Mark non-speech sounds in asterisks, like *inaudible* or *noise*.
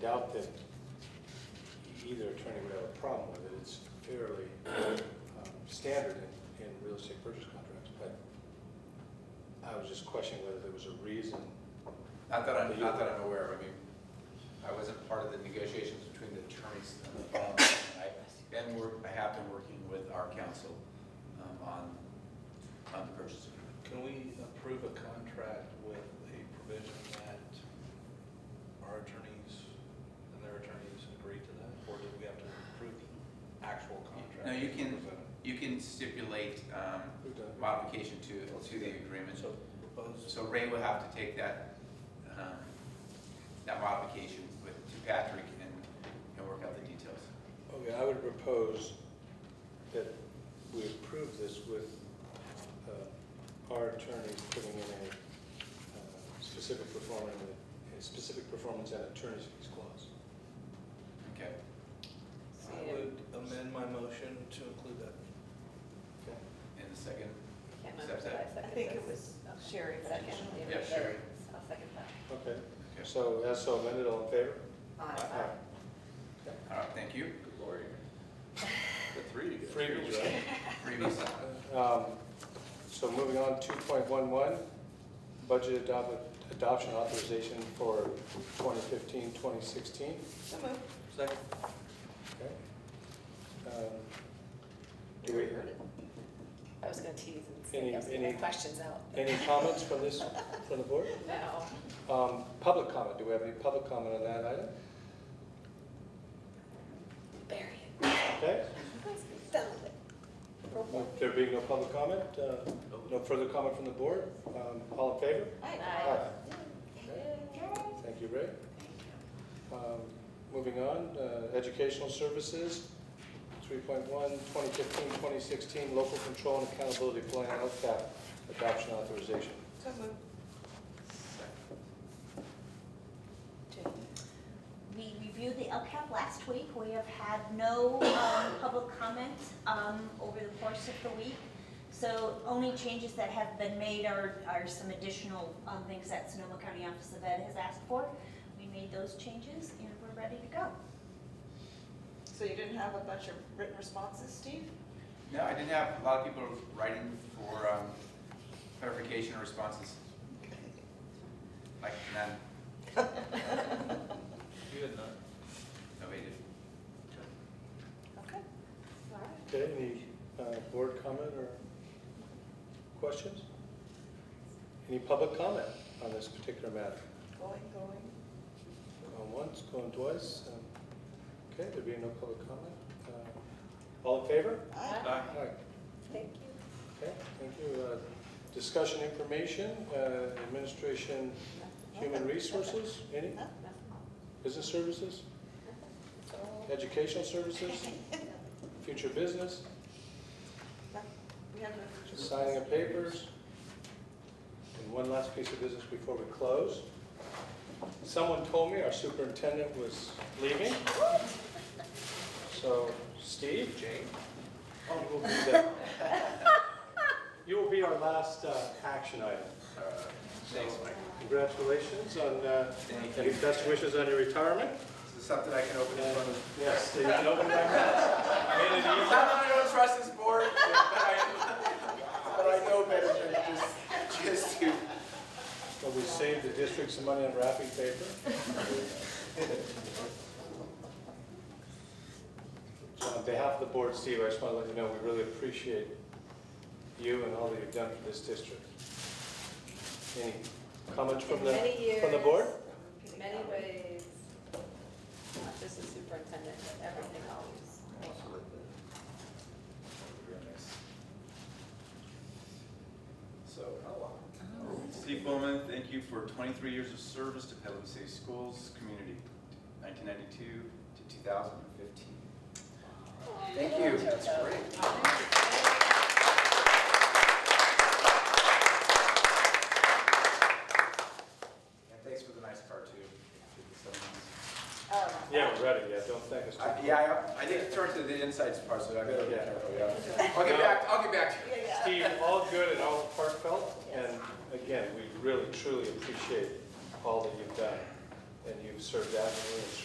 doubt that either attorney would have a problem with it. It's fairly um, standard in, in real estate purchase contracts, but I was just questioning whether there was a reason. Not that I'm, not that I'm aware of, I mean, I wasn't part of the negotiations between the attorneys um, and the bond. I've been work, I have been working with our counsel um, on, on the purchase agreement. Can we approve a contract with a provision that our attorneys and their attorneys agree to that? Or do we have to approve the actual contract? No, you as can, presented? you can stipulate um, We've done- modification to, to the agreement. So propose, So Ray will have to take that, um, that modification with, to Patrick and, and work out the details. Okay, I would propose that we approve this with uh, our attorney putting in a uh, specific performance, a specific performance and attorney's fees clause. Okay, I would amend my motion to include that. Okay? and the second, Can't remember that I seconded. I think it this. was Sherry second. Yeah, Sherry. I'll second that. Okay, okay. so as so amended, all in favor? Uh, Aye. Uh, All right, thank you. Good *laughs* lord. The three. Freebies, right? Previous, Um, So moving on, 2.11, budget adopt- adoption authorization for 2015, 2016. So moved. Second. Okay. Um, Do we, I was gonna tease and uh, Any- say, I was gonna any- have questions out. any comments from this, from the board? No. Um, Public comment, do we have any public comment on that item? Bury Okay, it. Settle it. With there being no public comment, uh, no further comment from the board, um, all in favor? Aye. Okay. Thank you, Ray. Um, Moving on, uh, educational services, 3.1, 2015, 2016, local control and accountability plan, LCAP, adoption authorization. So moved. We reviewed the LCAP last week. We have had no um, public comment um, over the course of the week. So only changes that have been made are, are some additional um, things that Sonoma County Office of Ed has asked for. We made those changes and we're ready to go. So you didn't have a bunch of written responses, Steve? no, I didn't have a lot of people writing for um, clarification or responses, like none, You had none. nobody did. Okay. All right. Okay, any uh, board comment or questions? Any public comment on this particular matter? Going, going. Going once, going twice? um, Okay, there being no public comment. uh, All in favor? Uh-huh. Aye. All right. Thank you. Okay, thank you. Uh, Discussion information, uh, administration, human resources, any? Business services, educational services, future business, We have a. signing of papers. And one last piece of business before we close. Someone told me our superintendent was leaving. So Steve, Jane, Oh, you will be the, *laughs* you will be our last uh, action item. Uh, Thanks, Mike. Congratulations on, uh, Thank any you. best wishes on your retirement. Is this something I can open in front And, of? Yes, they can open my mouth. *laughs* Made it Not easy. that I don't trust this board, but I, but I know better than just, just to. But we saved the district some money on wrapping paper. So on behalf of the board, Steve, I just want to let you know, we really appreciate you and all that you've done for this district. Any comments from the, Many from the board? years, in Many ways, not just the superintendent, but everything always. So, Oh. Steve Bowman, thank you for 23 years of service to Petaluma City Schools community, 1992 to 2015. Thank you. That's great. And thanks for the nice part, too. Oh. Yeah, we're ready, yeah, don't thank us. I- Uh, Yeah, I I didn't turn to the insides part, so I better be Yeah. careful, yeah. I'll get back, I'll get back to you. Yeah, yeah. Steve, all good and all heartfelt, and again, we really truly appreciate all that you've done, and you've served admirably and